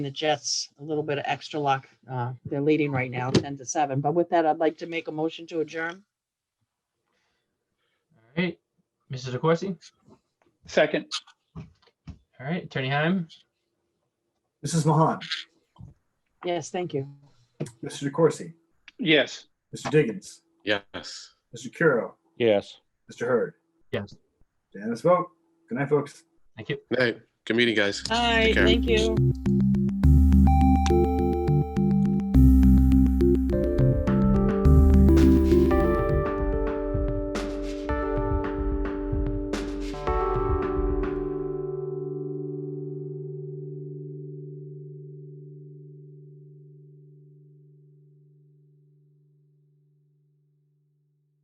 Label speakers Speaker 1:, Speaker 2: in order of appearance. Speaker 1: the Jets a little bit of extra luck. Uh, They're leading right now, 10 to 7. But with that, I'd like to make a motion to adjourn.
Speaker 2: All right, Mrs. DeCoursey.
Speaker 3: Second,
Speaker 2: All right, Attorney Heim.
Speaker 4: Mrs. Mahan,
Speaker 1: Yes, thank you.
Speaker 4: Mr. DeCoursey,
Speaker 3: yes.
Speaker 4: Mr. Diggins,
Speaker 5: Yes.
Speaker 4: Mr. Curo,
Speaker 6: Yes.
Speaker 4: Mr. Hurd.
Speaker 2: Yes.
Speaker 4: unanimous vote. Good night, folks.
Speaker 2: Thank you.
Speaker 5: Hey, good meeting, guys.
Speaker 1: All right,
Speaker 5: care.
Speaker 1: thank you.